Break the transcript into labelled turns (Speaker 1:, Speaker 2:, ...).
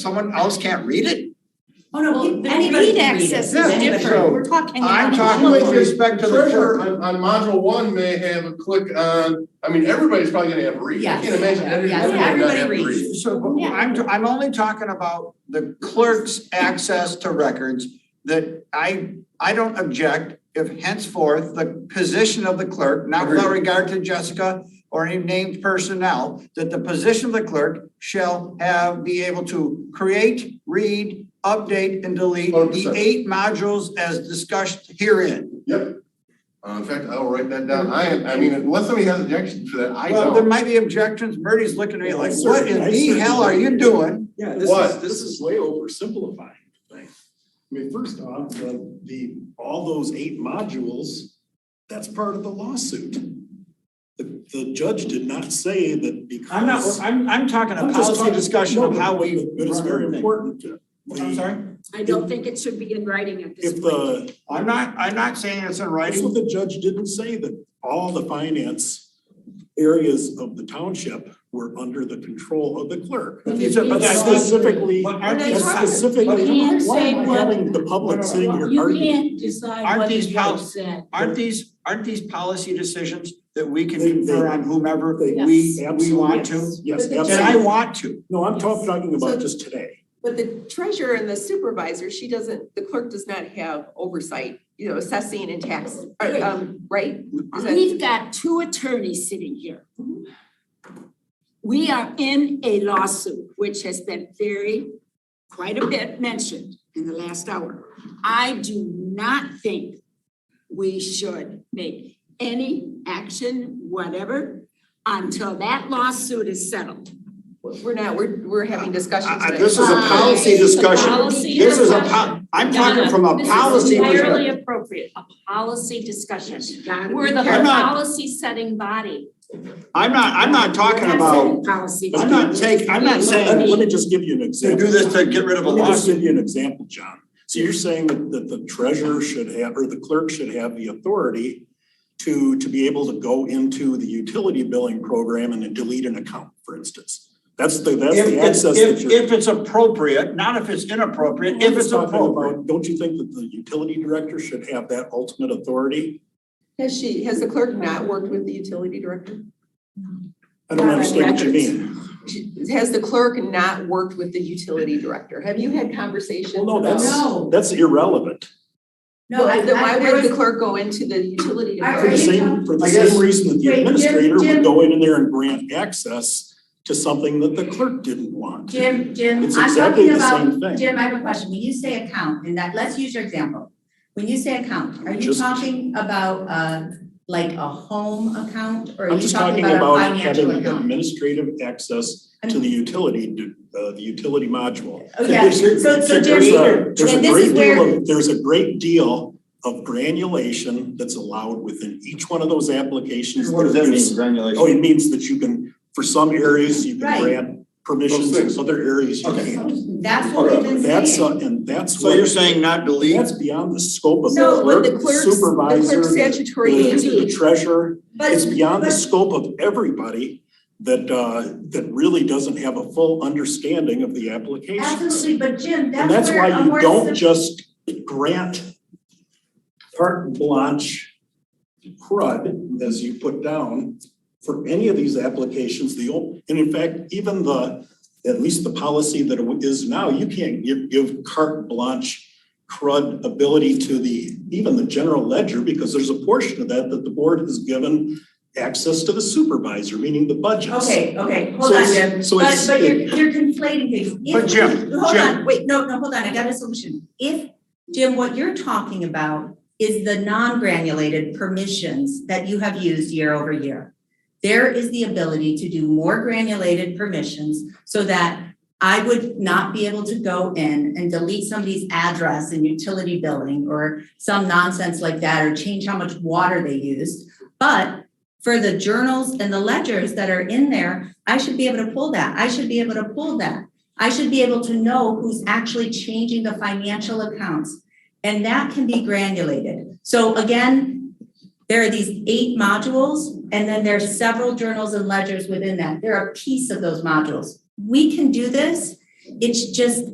Speaker 1: someone else can't read it?
Speaker 2: Oh, no,
Speaker 3: Well,
Speaker 2: he-
Speaker 3: the
Speaker 2: anybody
Speaker 3: read
Speaker 2: can read
Speaker 3: access is
Speaker 2: it. Anybody-
Speaker 1: different.
Speaker 3: we're talking.
Speaker 1: I'm
Speaker 3: about-
Speaker 1: talking with respect to the
Speaker 4: Treasurer
Speaker 1: treasurer.
Speaker 4: on, on module one may have a click on, I mean, everybody's probably gonna have to read, I
Speaker 2: Yes.
Speaker 4: can't imagine any-
Speaker 2: Yes,
Speaker 4: everybody not have to read.
Speaker 2: everybody reads.
Speaker 1: So but I'm, I'm only talking about the clerk's access to records that I, I don't object if henceforth the position of the clerk, not without regard to Jessica or any named personnel, that the position of the clerk shall have, be able to create, read, update, and delete the
Speaker 4: 100%.
Speaker 1: eight modules as discussed herein.
Speaker 4: Yep. Uh, in fact, I'll write that down, I, am- I mean, unless somebody has objection to that, I
Speaker 1: Well, there
Speaker 4: don't.
Speaker 1: might be objections. Murty's looking at me like,
Speaker 5: Yes, sir.
Speaker 1: what in
Speaker 5: Yes,
Speaker 1: the
Speaker 5: sir.
Speaker 1: hell are you doing?
Speaker 5: Yeah, this
Speaker 4: What?
Speaker 5: is, this is way oversimplifying the thing. I mean, first off, the, the, all those eight modules, that's part of the lawsuit. The, the judge did not say that because.
Speaker 1: I'm not, I'm, I'm talking a
Speaker 5: I'm just
Speaker 1: policy
Speaker 5: talking-
Speaker 1: discussion of
Speaker 5: no,
Speaker 1: how we.
Speaker 5: But it's very important to.
Speaker 1: I'm sorry?
Speaker 6: I don't think it should be in writing at this
Speaker 5: If
Speaker 6: point.
Speaker 1: uh,
Speaker 5: the,
Speaker 1: I'm not, I'm not saying it's in
Speaker 5: that's
Speaker 1: writing.
Speaker 5: what the judge didn't say, that all the finance areas of the township were under the control of the clerk.
Speaker 1: But these are- but
Speaker 5: That's
Speaker 1: that's-
Speaker 5: specifically,
Speaker 1: But aren't these,
Speaker 5: that's specifically,
Speaker 6: You can't
Speaker 5: why
Speaker 6: say
Speaker 5: am I
Speaker 6: what-
Speaker 5: having the public sitting here
Speaker 6: You
Speaker 5: arguing?
Speaker 6: can't decide
Speaker 1: Aren't
Speaker 6: what the
Speaker 1: these
Speaker 6: judge
Speaker 1: policies-
Speaker 6: said.
Speaker 1: aren't these, aren't these policy decisions that we can
Speaker 5: They-
Speaker 1: confer
Speaker 5: they-
Speaker 1: on whomever we,
Speaker 5: they-
Speaker 1: we want to?
Speaker 5: Yes,
Speaker 3: But the
Speaker 5: absolutely.
Speaker 1: And I want to.
Speaker 5: No, I'm talk- talking
Speaker 3: So-
Speaker 5: about just today.
Speaker 3: But the treasurer and the supervisor, she doesn't, the clerk does not have oversight, you know, assessing and tax, or, um, right? Is that-
Speaker 6: We've got two attorneys sitting here. We are in a lawsuit, which has been very, quite a bit mentioned in the last hour. I do not think we should make any action, whatever, until that lawsuit is settled.
Speaker 3: We're not, we're, we're having discussions
Speaker 1: I- I-
Speaker 3: today.
Speaker 1: This is a policy
Speaker 6: It's a
Speaker 1: discussion.
Speaker 6: policy
Speaker 1: This is a, po-
Speaker 6: discussion.
Speaker 1: I'm talking from a
Speaker 7: This is
Speaker 1: policy
Speaker 7: entirely
Speaker 1: perspective.
Speaker 7: appropriate, a policy discussion.
Speaker 6: You gotta be
Speaker 7: We're the
Speaker 1: I'm not-
Speaker 7: policy setting body.
Speaker 1: I'm not, I'm not talking
Speaker 6: We're not
Speaker 1: about,
Speaker 6: setting policy.
Speaker 1: I'm not taking, I'm not
Speaker 5: Let
Speaker 1: saying
Speaker 5: me- Let me just give you an
Speaker 1: to
Speaker 5: example.
Speaker 1: do this to get rid of a
Speaker 5: Let me just
Speaker 1: lawsuit.
Speaker 5: give you an example, John. So you're saying that, that the treasurer should have, or the clerk should have the authority to, to be able to go into the utility billing program and then delete an account, for instance. That's the, that's
Speaker 1: If,
Speaker 5: the
Speaker 1: it's-
Speaker 5: access that
Speaker 1: if,
Speaker 5: you're.
Speaker 1: if it's appropriate, not if it's inappropriate, if it's
Speaker 5: talking about.
Speaker 1: appropriate.
Speaker 5: Don't you think that the utility director should have that ultimate authority?
Speaker 3: Has she, has the clerk not worked with the utility director?
Speaker 5: I don't
Speaker 6: Not on
Speaker 5: understand what you
Speaker 6: records.
Speaker 5: mean.
Speaker 3: She- Has the clerk not worked with the utility director? Have you had conversations?
Speaker 5: Well, no,
Speaker 3: about-
Speaker 5: that's,
Speaker 2: No.
Speaker 5: that's irrelevant.
Speaker 2: No, I, I,
Speaker 3: Then why
Speaker 2: there
Speaker 3: would the
Speaker 2: was,
Speaker 3: clerk go into the utility
Speaker 2: I-
Speaker 5: For the
Speaker 3: director?
Speaker 2: I-
Speaker 5: same, for the
Speaker 1: I guess-
Speaker 5: same reason that the
Speaker 2: Wait, Jim-
Speaker 5: administrator
Speaker 2: Jim-
Speaker 5: would go in there and grant access to something that the clerk didn't want.
Speaker 7: Jim, Jim,
Speaker 5: It's
Speaker 7: I'm
Speaker 5: exactly
Speaker 7: talking
Speaker 5: the
Speaker 7: about,
Speaker 5: same thing.
Speaker 7: Jim, I have a question. When you say account, and that, let's use your example. When you say account, are you
Speaker 5: Just-
Speaker 7: talking about uh like a home account or are
Speaker 5: I'm
Speaker 7: you
Speaker 5: just
Speaker 7: talking
Speaker 5: talking
Speaker 7: about
Speaker 5: about
Speaker 7: a financial account?
Speaker 5: having administrative access to the utility, d- uh, the utility module.
Speaker 7: Oh, yeah, so so
Speaker 5: There's a-
Speaker 7: Jim,
Speaker 5: There's a
Speaker 7: and this
Speaker 5: great
Speaker 7: is
Speaker 5: deal
Speaker 7: where-
Speaker 5: of, there's a great deal of granulation that's allowed within each one of those applications. There's- Oh,
Speaker 1: granulation?
Speaker 5: it means that you can, for some areas, you
Speaker 7: Right.
Speaker 5: can grant permissions,
Speaker 4: Those things.
Speaker 5: other areas you
Speaker 1: Okay.
Speaker 5: can't.
Speaker 7: that's what we've been saying.
Speaker 5: That's, uh, and that's
Speaker 1: So
Speaker 5: what-
Speaker 1: you're saying not delete?
Speaker 5: That's beyond the scope of the
Speaker 3: No, when
Speaker 5: clerk,
Speaker 3: the
Speaker 5: the
Speaker 3: clerk's, the
Speaker 5: supervisor,
Speaker 3: clerk's
Speaker 5: the,
Speaker 3: statutory
Speaker 5: the- the
Speaker 3: duty.
Speaker 5: treasurer.
Speaker 7: But-
Speaker 5: It's beyond the
Speaker 7: but-
Speaker 5: scope of everybody that, uh, that really doesn't have a full understanding of the applications.
Speaker 7: Absolutely, but Jim,
Speaker 5: And
Speaker 7: that's
Speaker 5: that's
Speaker 7: where
Speaker 5: why
Speaker 7: a more
Speaker 5: you
Speaker 7: sim-
Speaker 5: don't just grant carte blanche crud, as you put down, for any of these applications, the, o- and in fact, even the, at least the policy that it is now, you can't give, give carte blanche crud ability to the, even the general ledger, because there's a portion of that that the board has given access to the supervisor, meaning the budgets.
Speaker 7: Okay, okay, hold
Speaker 5: So
Speaker 7: on,
Speaker 5: it's-
Speaker 7: Jim,
Speaker 5: so
Speaker 7: but
Speaker 5: it's-
Speaker 7: but you're you're conflating things. If
Speaker 1: But Jim,
Speaker 7: we- Hold
Speaker 1: Jim.
Speaker 7: on, wait, no, no, hold on, I got a solution. If, Jim, what you're talking about is the non-granulated permissions that you have used year over year. There is the ability to do more granulated permissions so that I would not be able to go in and delete somebody's address in utility billing or some nonsense like that, or change how much water they used. But for the journals and the ledgers that are in there, I should be able to pull that. I should be able to pull that. I should be able to know who's actually changing the financial accounts. And that can be granulated. So again, there are these eight modules, and then there are several journals and ledgers within that. They're a piece of those modules. We can do this It's just